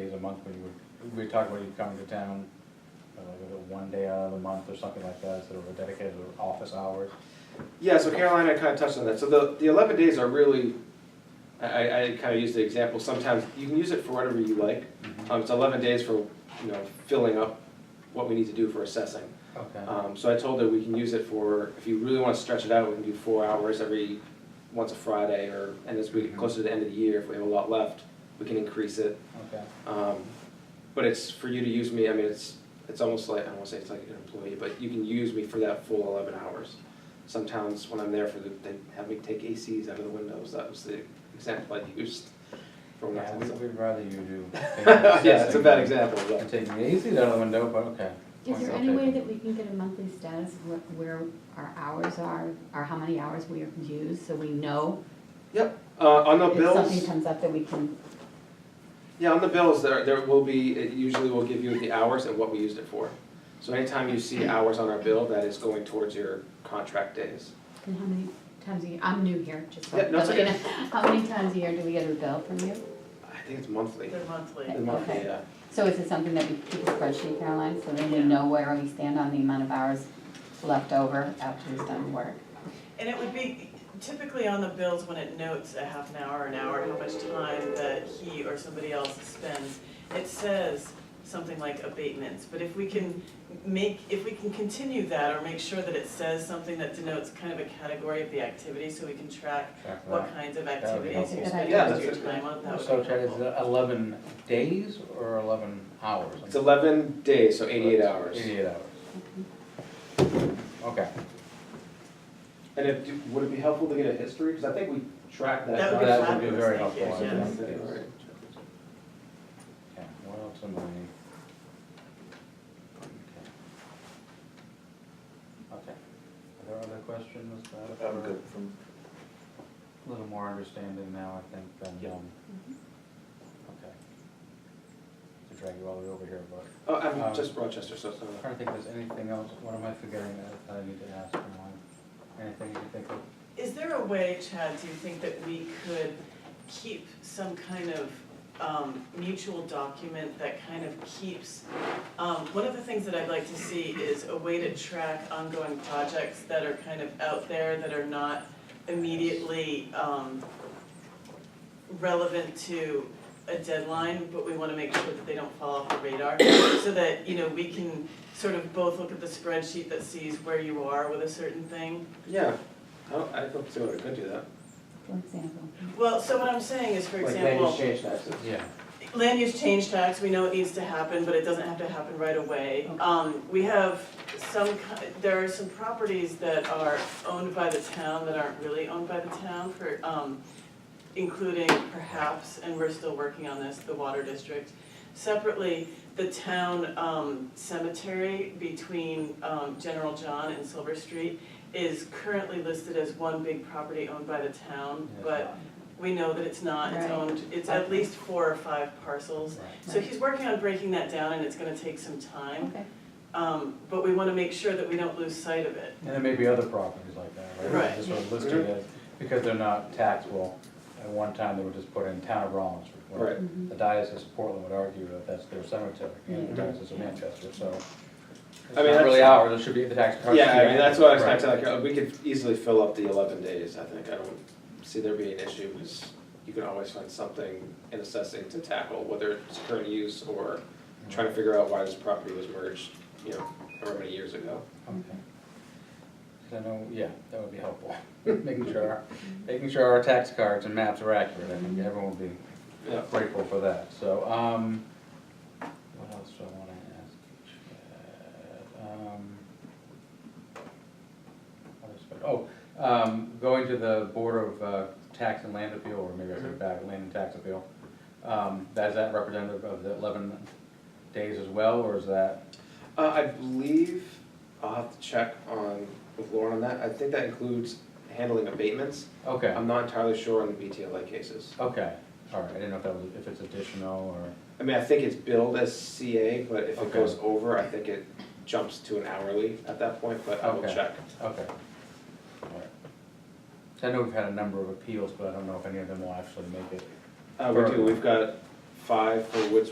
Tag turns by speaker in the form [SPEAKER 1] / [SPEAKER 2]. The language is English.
[SPEAKER 1] month when you were, we talked about you coming to town, uh, like a one day out of the month or something like that, sort of a dedicated office hours.
[SPEAKER 2] Yeah, so Carolina kind of touched on that. So the, the 11 days are really, I, I, I kind of use the example, sometimes you can use it for whatever you like.
[SPEAKER 1] Mm-hmm.
[SPEAKER 2] Um, it's 11 days for, you know, filling up what we need to do for assessing.
[SPEAKER 1] Okay.
[SPEAKER 2] Um, so I told her we can use it for, if you really want to stretch it out, we can do four hours every, once a Friday or, and as we get closer to the end of the year, if we have a lot left, we can increase it.
[SPEAKER 1] Okay.
[SPEAKER 2] Um, but it's for you to use me, I mean, it's, it's almost like, I don't wanna say it's like an employee, but you can use me for that full eleven hours. Some towns, when I'm there for the, they have me take ACs out of the windows, that was the example I used for when I
[SPEAKER 1] Yeah, we-
[SPEAKER 2] was.
[SPEAKER 1] we'd rather you do.
[SPEAKER 2] Yeah, it's a bad example,
[SPEAKER 1] And
[SPEAKER 2] but,
[SPEAKER 1] take the AC out of the window, but okay.
[SPEAKER 3] Is there
[SPEAKER 1] Point
[SPEAKER 3] any
[SPEAKER 1] well
[SPEAKER 3] way
[SPEAKER 1] taken.
[SPEAKER 3] that we can get a monthly status of what- where our hours are, or how many hours we have used, so we know
[SPEAKER 2] uh, on the
[SPEAKER 3] if something
[SPEAKER 2] bills,
[SPEAKER 3] comes up that we can,
[SPEAKER 2] yeah, on the bills, there, there will be, it usually will give you the hours and what we used it for. So anytime you see hours on our bill, that is going towards your contract days.
[SPEAKER 3] and how many times a year, I'm new here, just. so-
[SPEAKER 2] Yeah, no, it's okay.
[SPEAKER 3] How many times a year do we get a bill from you?
[SPEAKER 2] I think it's monthly,
[SPEAKER 4] They're monthly.
[SPEAKER 2] the monthly,
[SPEAKER 3] Okay.
[SPEAKER 2] yeah.
[SPEAKER 3] So is it something that we keep a spreadsheet, Caroline, so then we
[SPEAKER 4] Yeah.
[SPEAKER 3] know where we stand on the amount of hours left over after we've done work?
[SPEAKER 4] And it would be typically on the bills when it notes a half an hour, an hour, how much time that he or somebody else spends. It says something like abatements, but if we can make, if we can continue that or make sure that it says something that denotes kind of a category of the activity so we can track
[SPEAKER 1] Check
[SPEAKER 4] what
[SPEAKER 1] that.
[SPEAKER 4] kinds of
[SPEAKER 1] would be
[SPEAKER 4] activities
[SPEAKER 1] helpful.
[SPEAKER 4] you're
[SPEAKER 2] Yeah,
[SPEAKER 4] spending
[SPEAKER 2] that's
[SPEAKER 4] your
[SPEAKER 2] it.
[SPEAKER 4] time on, that would be
[SPEAKER 1] So Chad, is
[SPEAKER 4] helpful.
[SPEAKER 1] it eleven days or eleven hours?
[SPEAKER 2] It's eleven days, so eighty-eight hours.
[SPEAKER 1] Eighty-eight hours. Okay.
[SPEAKER 2] And if, do- would it be helpful to get a history, because I think we tracked that.
[SPEAKER 4] That would be
[SPEAKER 1] That would be
[SPEAKER 4] fabulous,
[SPEAKER 1] very
[SPEAKER 4] thank you,
[SPEAKER 1] helpful, I
[SPEAKER 4] yes.
[SPEAKER 1] think.
[SPEAKER 2] Yeah, alright.
[SPEAKER 1] Okay, what else am I? Okay. Are there other questions that are?
[SPEAKER 5] from.
[SPEAKER 1] A little more understanding now, I think, than,
[SPEAKER 2] Yeah.
[SPEAKER 1] um, okay. To drag you all the way over here, but
[SPEAKER 2] Oh, I'm
[SPEAKER 1] Um,
[SPEAKER 2] just Rochester, so it's
[SPEAKER 1] I'm
[SPEAKER 2] not.
[SPEAKER 1] trying to think if there's anything else, what am I forgetting that I need to ask anyone? Anything you can think of?
[SPEAKER 4] Is there a way, Chad, do you think that we could keep some kind of um, mutual document that kind of keeps? um, One of the things that I'd like to see is a way to track ongoing projects that are kind of out there that are not immediately um, relevant to a deadline, but we want to make sure that they don't fall off the radar. So that, you know, we can sort of both look at the spreadsheet that sees where you are with a certain thing
[SPEAKER 2] Yeah, I don't, Oh, I don't see why we could do that.
[SPEAKER 3] For example,
[SPEAKER 4] Well, so what I'm saying is, for
[SPEAKER 2] Like land
[SPEAKER 4] example,
[SPEAKER 2] use change taxes.
[SPEAKER 1] Yeah.
[SPEAKER 4] land use change tax, we know it needs to happen, but it doesn't have to happen right away.
[SPEAKER 3] Okay.
[SPEAKER 4] Um, we have some, ki- there are some properties that are owned by the town that aren't really owned by the town for, um, including perhaps, and we're still working on this, the water district. Separately, the town, um, cemetery between, um, General John and Silver Street is currently listed as one big property owned by the town,
[SPEAKER 1] Yeah.
[SPEAKER 4] but we know that it's not, it's
[SPEAKER 3] Right.
[SPEAKER 4] owned, it's at least four or five parcels.
[SPEAKER 1] Right.
[SPEAKER 4] So he's working on breaking that down and it's gonna take some time.
[SPEAKER 3] okay.
[SPEAKER 4] Um, but we wanna make sure that we don't lose sight of it.
[SPEAKER 1] And there may be other properties like that, right?
[SPEAKER 4] Right.
[SPEAKER 1] Just sort of listed as, because they're not taxable, at one time they were just put in town of Rollins. where
[SPEAKER 2] Right.
[SPEAKER 3] Mhm.
[SPEAKER 1] The diocese of Portland would argue that that's their cemetery, and the
[SPEAKER 2] Mhm.
[SPEAKER 1] diocese of Manchester, so. It's
[SPEAKER 2] I
[SPEAKER 1] not
[SPEAKER 2] mean, that's-
[SPEAKER 1] really ours, it should be the tax.
[SPEAKER 2] Yeah, I mean, that's what I was
[SPEAKER 1] Right.
[SPEAKER 2] trying to tell you, we could easily fill up the eleven days, I think, I don't see there being an issue, because you can always find something in assessing to tackle, whether it's current use or trying to figure out why this property was merged, you know, however many years ago.
[SPEAKER 1] Okay. 'Cause I know, yeah, that would be helpful, making sure, our- making sure our tax cards and maps are accurate, I think everyone would be
[SPEAKER 2] Yeah.
[SPEAKER 1] grateful for that, so, um, what else do I wanna ask Chad? Um, what else but- Oh, um, going to the Board of uh, Tax and Land Appeal, or maybe I said back, Land and Tax Appeal, um, that is that representative of the eleven days as well, or is that?
[SPEAKER 2] Uh, I believe, I'll have to check on, with Lauren on that, I think that includes handling abatements.
[SPEAKER 1] Okay,
[SPEAKER 2] I'm not entirely sure on the BTLA cases.
[SPEAKER 1] okay, all right, I didn't know if that was, if it's additional or,
[SPEAKER 2] I mean, I think it's billed as CA, but if it
[SPEAKER 1] Okay.
[SPEAKER 2] goes over, I think it jumps to an hourly at that point, but I will
[SPEAKER 1] Okay.
[SPEAKER 2] check.
[SPEAKER 1] okay. All right. So I know we've had a number of appeals, but I don't know if any of them will actually make it
[SPEAKER 2] Uh, we
[SPEAKER 1] Perfect.
[SPEAKER 2] do, we've got five for Woods